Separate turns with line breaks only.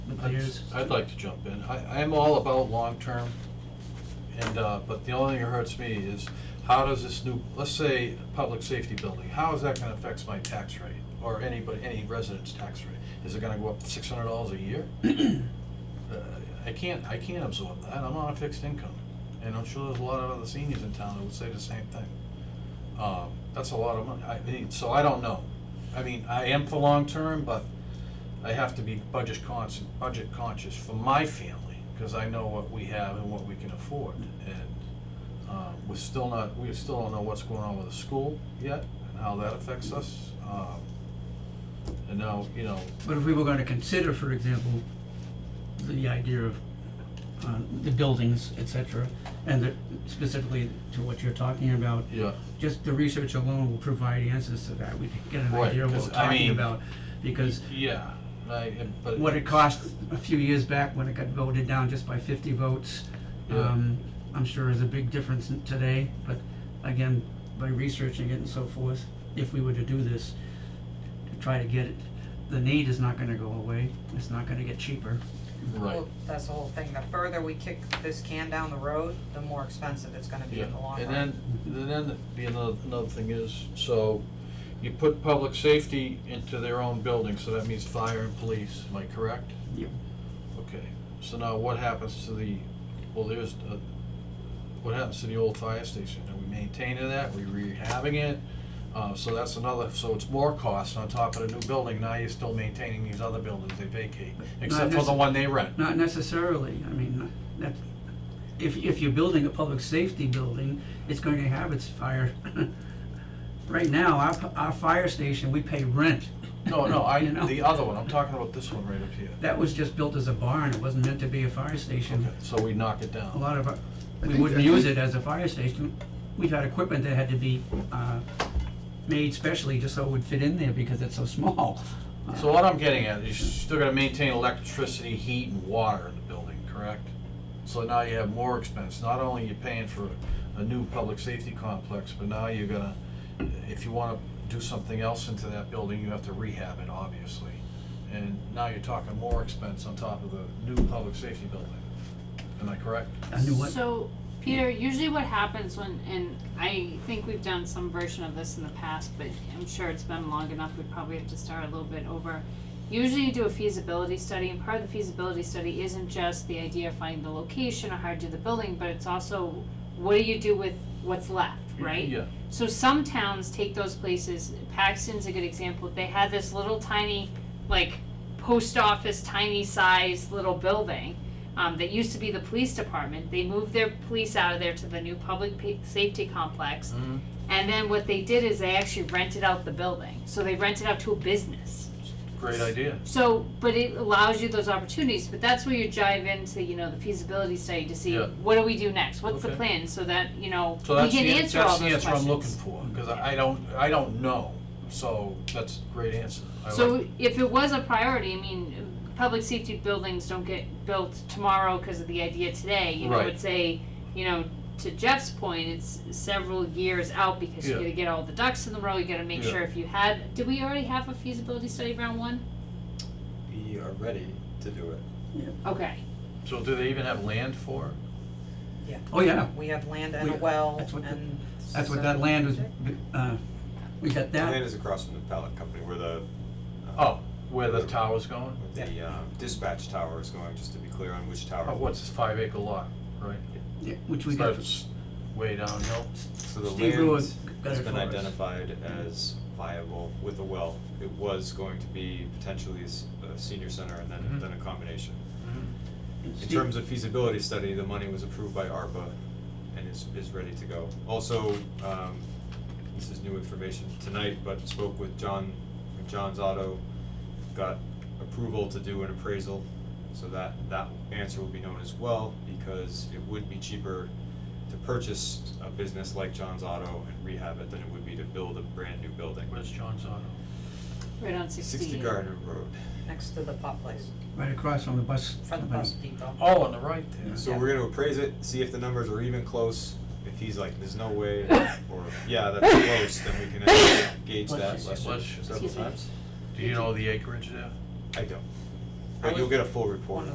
years.
I'd like to jump in. I, I'm all about long-term, and, uh, but the only thing that hurts me is, how does this new, let's say, public safety building, how is that gonna affect my tax rate? Or anybody, any resident's tax rate? Is it gonna go up six hundred dollars a year? Uh, I can't, I can't absorb that. I'm on a fixed income. And I'm sure there's a lot of other seniors in town that would say the same thing. Um, that's a lot of money. I mean, so I don't know. I mean, I am for long-term, but I have to be budget conscious, budget conscious for my family, because I know what we have and what we can afford. And uh, we're still not, we still don't know what's going on with the school yet and how that affects us. Um, And now, you know,
But if we were gonna consider, for example, the idea of, uh the buildings, et cetera, and the, specifically to what you're talking about,
yeah,
just the research alone will provide answers to that, we can get an
Right,
idea of what
'cause
we're
I
talking
mean-
about. Because
yeah, right, and- but.
what it cost a few years back when it got voted down just by fifty votes,
Yeah.
um, I'm sure is a big difference in today, but again, by researching it and so forth, if we were to do this, to try to get it, the need is not gonna go away, it's not gonna get cheaper.
Right.
Well, that's the whole thing, the further we kick this can down the road, the more expensive it's gonna be
Yeah,
in the long run.
and then, and then be another, another thing is, so you put public safety into their own building, so that means fire and police, am I correct?
Yep.
Okay, so now what happens to the, well, there's, uh, what happens to the old fire station? Are we maintaining that, we rehabbing it? Uh, so that's another, so it's more cost on top of the new building, now you're still maintaining these other buildings they vacate, except for the
necess-
one they rent.
Not necessarily, I mean, that, if, if you're building a public safety building, it's going to have its fire. Right now, our, p- our fire station, we pay rent.
No, no, I,
You know?
the other one, I'm talking about this one right up here.
That was just built as a barn, it wasn't meant to be a fire station.
Okay, so we knock it down.
A lot of, our- we
think
wouldn't
that-
use it as a fire station. We've had equipment that had to be, uh, made specially just so it would fit in there because it's so small. Uh,
So what I'm getting at is you're still gonna maintain electricity, heat, and water in the building, correct? So now you have more expense, not only you're paying for a new public safety complex, but now you're gonna, if you wanna do something else into that building, you have to rehab it, obviously. And now you're talking more expense on top of the new public safety building, am I correct?
I knew what,
So, Peter, usually what happens when, and I think we've done some version of this in the past, but I'm sure it's been long enough, we'd probably have to start a little bit over. Usually you do a feasibility study, and part of the feasibility study isn't just the idea of finding the location or how to do the building, but it's also what do you do with what's left, right?
Yeah,
So some towns take those places. Paxton's a good example. They had this little tiny, like, post office, tiny size little building um, that used to be the police department. They moved their police out of there to the new public pa- safety complex.
Mhm.
And then what they did is they actually rented out the building. So they rented out to a business.
great idea.
So, but it allows you those opportunities, but that's where you jive into, you know, the feasibility study to see,
Yeah.
what do we do next? What's the
Okay.
plan? So that, you know,
So
we
that's
can
the, an-
answer all
that's
those
the
questions.
answer I'm looking for, cause I I don't, I don't know, so that's a great answer. I like
So if it was a priority, I mean, public safety buildings don't get built tomorrow because of the idea today. You know,
Right.
it's a, you know, to Jeff's point, it's several years out because you
Yeah.
gotta get all the ducks in the row, you gotta make
Yeah.
sure if you had, did we already have a feasibility study round one?
We are ready to do it.
Okay,
So do they even have land for it?
oh yeah,
We have land and a
We-
well
that's what the-
and.
that's what that land was, uh, we got
The
that,
Land is across from the pallet company where the. uh,
Oh, where the tower's going?
where The um, dispatch tower is going, just to be clear on which tower.
Oh, what's this five acre lot, right?
yeah, which we got.
Starts Way downhill.
So the
Steve
land
Ruiz got
has
it
been
for us.
identified as viable with a well. It was going to be potentially s- a senior center and then,
Mm-hmm.
Mhm.
then a combination. In
Steve-
terms of feasibility study, the money was approved by ARPA and is, is ready to go. Also, um, this is new information tonight, but spoke with John, from John's Auto, got approval to do an appraisal. So that, that answer will be known as well, because it would be cheaper to purchase a business like John's Auto and rehab it than it would be to build a brand new building.
Where's John's Auto?
right on sixty.
Sixty Gardner Road.
Next to the pot place,
Right across from the bus
front of the
company.
bus depot.
Oh, on the right there.
So we're gonna appraise it, see if the numbers are even close. If he's like, there's no way, or, yeah, that's close, then we can actually gauge that
Bless you.
lesson
Bless you.
several
Excuse me.
times.
Do you know the acreage there?
I don't. but you'll get a full report.